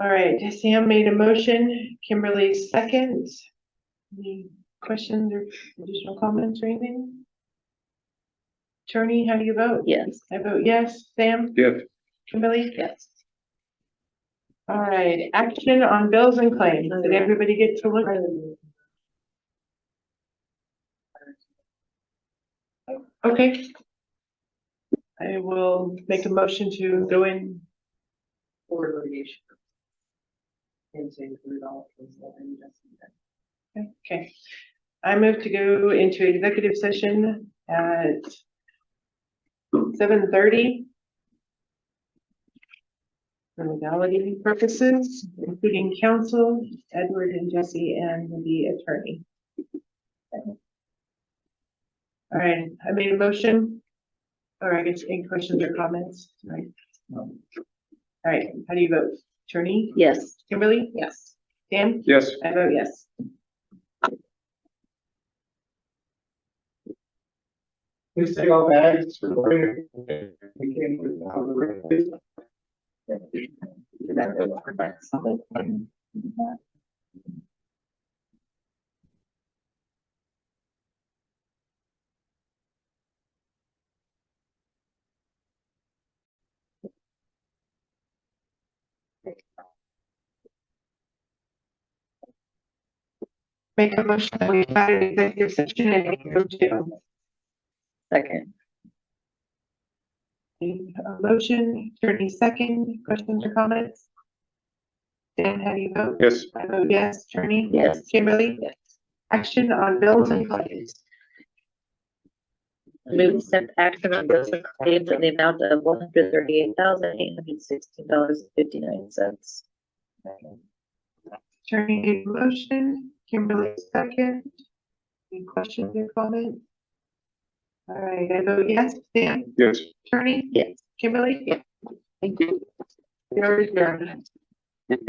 All right, Sam made a motion, Kimberly seconds. Any questions or additional comments or anything? Attorney, how do you vote? Yes. I vote yes. Sam, Yes. Kimberly? Yes. All right, action on bills and claims. Did everybody get to look? Okay. I will make a motion to go in. or litigation. And to include all of those. that I'm just- Okay. I move to go into executive session at seven thirty. For legality purposes, including counsel, Edward and Jesse and the attorney. All right, I made a motion. Or I guess any questions or comments, right? All right, how do you vote? Attorney, Yes. Kimberly, Yes. Dan? Yes. I vote yes. Please take all bags. We came without the- Make a motion that we invite an executive session and go to Second. a motion, attorney second, questions or comments? Dan, how do you vote? Yes. I vote yes, attorney. Yes. Kimberly, Yes. action on bills and claims. Move to accept action on bills and claims in the amount of one hundred thirty-eight thousand eight hundred sixteen dollars fifty-nine cents. Attorney made a motion, Kimberly second. Any questions or comments? All right, I vote yes, Dan, Yes. attorney, Yes. Kimberly. Yes. Thank you. We are adjourned.